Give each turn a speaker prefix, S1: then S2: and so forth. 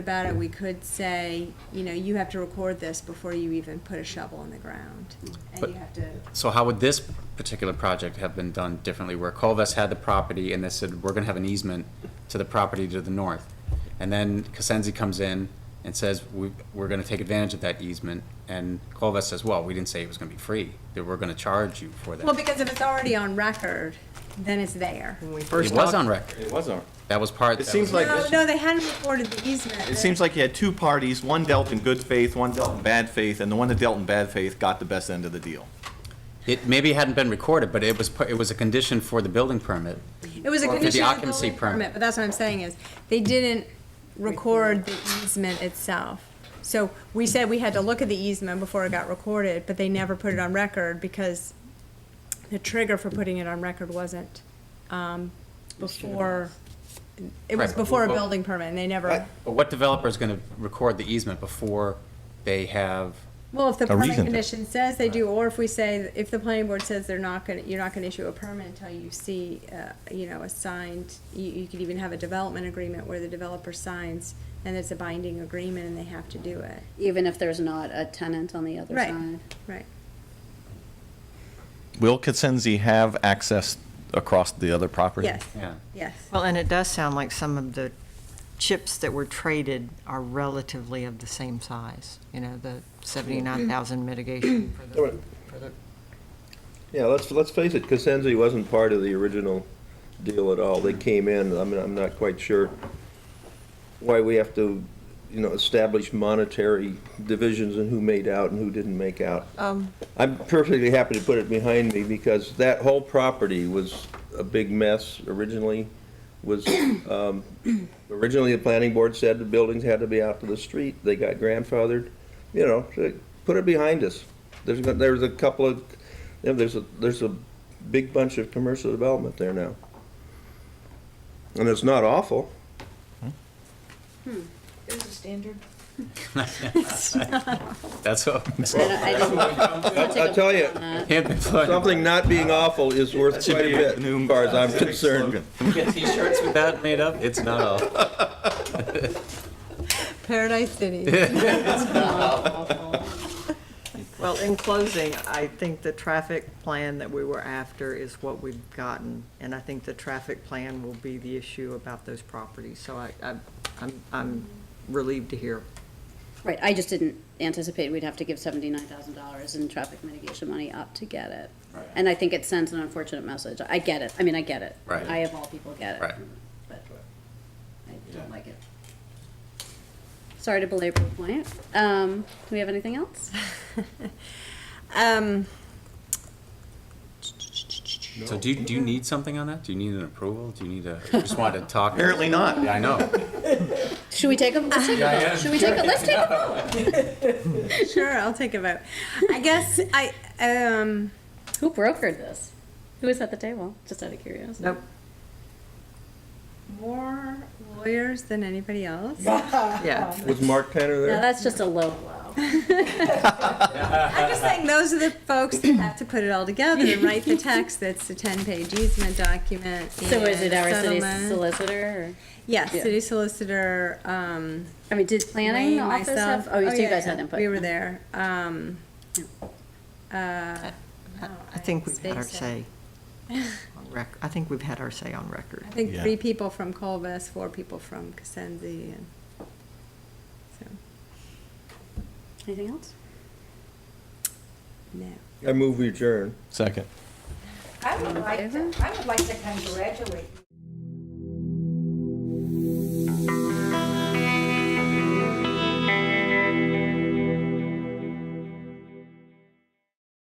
S1: about it, we could say, you know, you have to record this before you even put a shovel in the ground. And
S2: But-
S1: you have to,
S2: So how would this particular project have been done differently, where Colvest had the property and they said, we're gonna have an easement to the property to the north? And then Cosenzi comes in and says, we, we're gonna take advantage of that easement, and Colvest says, well, we didn't say it was gonna be free, that we're gonna charge you for
S1: well,
S2: that.
S1: because if it's already on record, then it's there.
S3: When we
S2: It
S3: first
S2: was
S3: talked-
S2: on record,
S4: It was on.
S2: that was part.
S4: It
S2: that
S4: seems
S2: was-
S4: like-
S1: No, no, they hadn't recorded the easement.
S4: It seems like you had two parties, one dealt in good faith, one dealt in bad faith, and the one that dealt in bad faith got the best end of the deal.
S2: It maybe hadn't been recorded, but it was, pu- it was a condition for the building permit.
S1: It was a
S2: for the
S1: condition of the
S2: occupancy
S1: building permit,
S2: permit.
S1: but that's what I'm saying is, they didn't record the easement itself. So we said we had to look at the easement before it got recorded, but they never put it on record because the trigger for putting it on record wasn't, um, before, it was
S2: Right.
S1: before a building permit, and they never,
S2: But what developer is gonna record the easement before they have,
S1: well, if the
S4: A
S1: permit
S4: reason to-
S1: condition says they do, or if we say, if the planning board says they're not gonna, you're not gonna issue a permit until you see, uh, you know, a signed, you, you could even have a development agreement where the developer signs, and it's a binding agreement, and they have to do it.
S5: even if there's not a tenant on the other
S1: Right.
S5: side.
S1: Right.
S4: Will Cosenzi have access across the other property?
S1: Yes,
S2: yeah.
S1: yes.
S3: Well, and it does sound like some of the chips that were traded are relatively of the same size, you know, the 79,000 mitigation for the, for the
S6: Yeah, let's, let's face it, Cosenzi wasn't part of the original deal at all. They came in, I mean, I'm not quite sure why we have to, you know, establish monetary divisions and who made out and who didn't make out.
S3: Um.
S6: I'm perfectly happy to put it behind me because that whole property was a big mess originally, was, um, originally the planning board said the buildings had to be out to the street. They got grandfathered, you know, so put it behind us. There's, go- there's a couple of, you know, there's a, there's a big bunch of commercial development there now. And it's not awful.
S7: There's a standard.
S2: That's what,
S5: I don't- I didn't- I'll take
S6: I'll
S5: a
S6: tell
S5: vote
S6: you,
S5: on that.
S6: Something not being awful is worth quite a bit, as far as I'm concerned.
S2: T-shirts with that made up? It's not all.
S1: Paradise City.
S3: Well, in closing, I think the traffic plan that we were after is what we've gotten, and I think the traffic plan will be the issue about those properties, so I, I- I'm, I'm relieved to hear.
S5: Right, I just didn't anticipate we'd have to give seventy-nine thousand dollars in traffic mitigation money up to get it. And I think it sends an unfortunate message. I get it, I mean, I get it.
S2: Right.
S5: I of all people get it.
S2: Right.
S5: But I don't like it. Sorry to belabor the point. Um, do we have anything else?
S1: Um,
S2: So do you, do you need something on that? Do you need an approval? Do you need a, you just wanted to talk?
S4: Apparently not.
S2: Yeah, I know.
S5: Should we take a, let's take a vote. Should we take a, let's take a vote.
S1: Sure, I'll take a vote. I guess I, um,
S5: Who brokered this? Who was at the table? Just out of curiosity.
S3: Nope,
S1: more lawyers than anybody else.
S3: yeah.
S6: Was Mark Tanner
S5: No,
S6: there?
S5: that's just a low blow.
S1: I'm just saying, those are the folks that have to put it all together and write the text that's a ten-page easement document.
S5: So is it
S1: and
S5: our city
S1: settlement.
S5: solicitor? Or,
S1: Yes,
S5: yeah.
S1: city solicitor, um,
S5: I mean, did planning
S1: Wayne,
S5: office
S1: myself.
S5: have? Oh, you so you
S1: yeah,
S5: guys
S1: yeah.
S5: had input.
S1: We were there, um, uh, oh,
S3: I I think we've had our
S1: Spaced
S3: say on rec, I think we've had our say on record.
S1: I think
S4: Yeah.
S1: three people from Colvest, four people from Cosenzi, and, so,
S5: Anything else?
S1: no.
S6: I move we adjourn.
S4: Second.
S7: I would like, to- I would like to congratulate you.